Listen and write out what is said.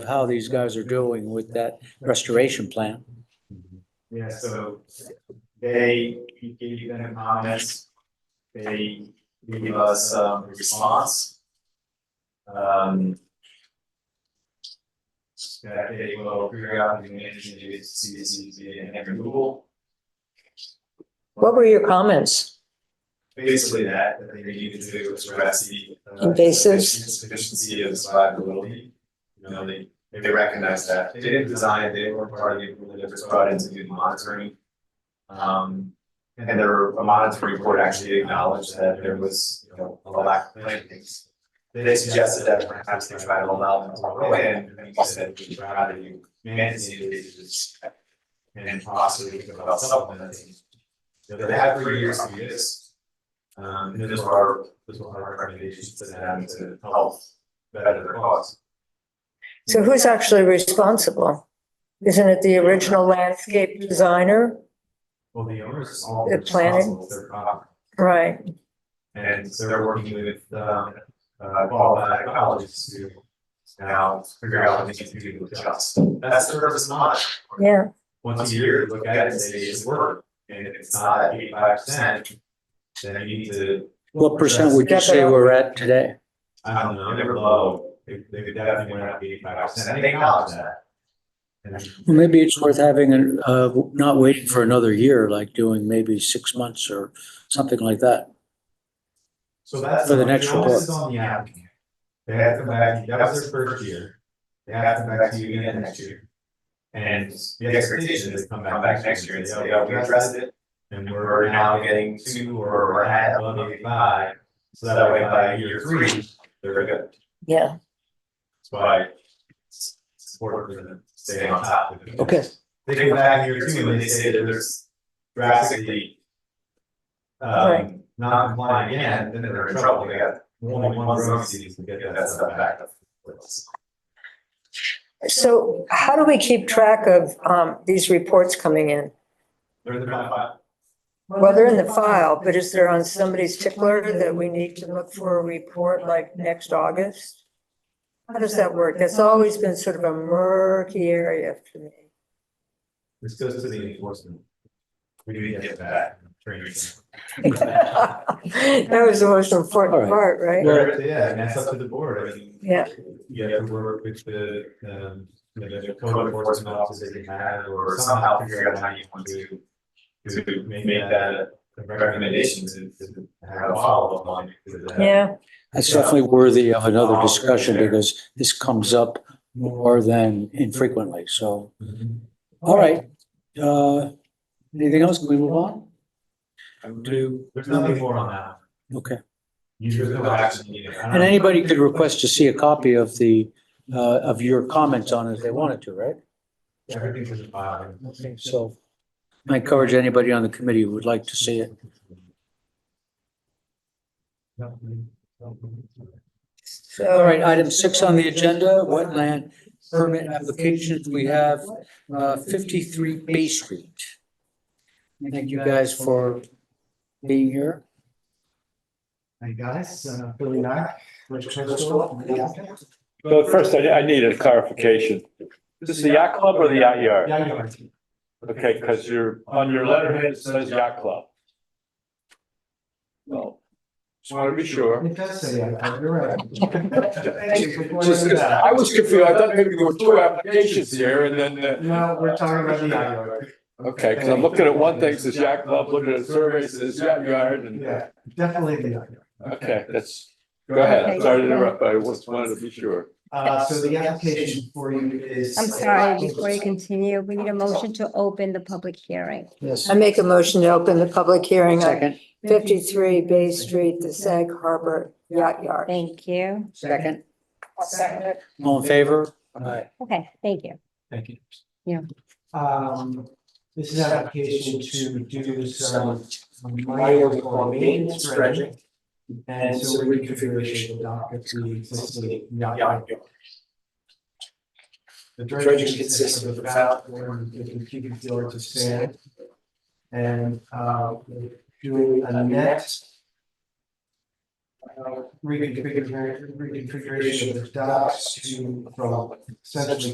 how these guys are doing with that restoration plan. Yeah, so they we gave them comments. They gave us um, a response. Um. That they will periodically manage to do CDC and every Google, What were your comments? basically that, that they needed to do is address the. uh, Invasives. Efficiency of survivability, you know, they they recognize that, they didn't design, it, they were part of the, group that was brought in to do the monitoring. Um, and their a monitoring report actually acknowledged that there was, you know, a lack of plantings. They suggested that perhaps they try to allow them to grow in, and you said, we try to manage the invasives. And possibly think about supplementing. You know, They have three years to do this. Um, and those are, those are our recommendations to them to help better their cause. So who's actually responsible? Isn't it the original landscape designer? Well, the owners all They're planning. responsible for their property, Right, and so they're working with, um, uh, qualified ecologists to now figure out what they can do to adjust. That's the purpose of mine. yeah, Once a year, look at it and say it's work, and if it's not at eighty-five percent, then you need to, What percent would you say we're at today? I don't know, they're low. They, they could definitely went up eighty-five percent, and they acknowledge that. And Well, maybe it's worth having, an- uh, not waiting for another year, like doing maybe six months or something like that. So that's. For the next onus is on the applicant. They have to come back, that was their first year. They have to come back to you again next year. And the expectation is to come back next year and say, yeah, we addressed it. And we're now getting two or we're at above eighty-five. So that way by year three, they're good. yeah. That's why it's important for them to stay on top of it. Okay, They come back here too and they say that there's drastically Right. um, not compliant again, then they're in trouble. They got only one road season to get that stuff back up. So how do we keep track of um these reports coming in? They're in the front file. Well, they're in the file, but is there on somebody's tickler that we need to look for a report like next August? How does that work? That's always been sort of a murky area for me. This goes to the enforcement. We need to get that. training. That was the most important part, right? They're- Yeah, and that's up to the board. I mean, Yeah. You have to work with the, um, you know, the code enforcement officers they have or somehow figure out how you want to to make that a recommendation to, to have a follow-up on. it, to that. Yeah. that's definitely worthy of another discussion because this comes up more than infrequently, so. All right, uh, anything else? Can we move on? Do, There's nothing more on that. okay. Usually there's no action needed. I don't And know. anybody could request to see a copy of the, uh, of your comments on it if they wanted to, right? Everything's in the file. Okay, so I encourage anybody on the committee who would like to see it. All right, item six on the agenda, wetland permit applications. We have uh, 53 Bay Street. Thank you guys for being here. Hey guys, uh, Billy Nye, Richard School. Well, first, I, I need a clarification. Is this the yacht club or the yacht yard? Yeah, you are. Okay, because you're, on your letterhead, it says yacht club. Well, just want to be sure. It does say, uh, you're right. uh, Thank you for pointing Just- it out. I was confused. I thought maybe there were two applications here and then, uh, No, we're talking about the yacht yard. okay, because I'm looking at one thing, it says yacht club, looking at a survey, it says yacht yard and, Yeah, definitely the yacht yard. okay, that's, go ahead. Sorry to interrupt, but I just wanted to be sure. Uh, so the application for you is. I'm sorry, before you continue, we need a motion to open the public hearing. Yes. I make a motion to open the public hearing on Second, fifty-three Bay Street, the Sag Harbor Yacht Yard. Thank you. second. All in favor? Aye. Okay, thank you. Thank you. Yeah. Um, this is an application to do some minor or maintenance dredging. And so reconfiguration of the dock of the existing yacht yard. The dredging consists of about four hundred fifty cubic yards of sand. And uh, we're doing a net reconfiguration, reconfiguration of the docks to, from essentially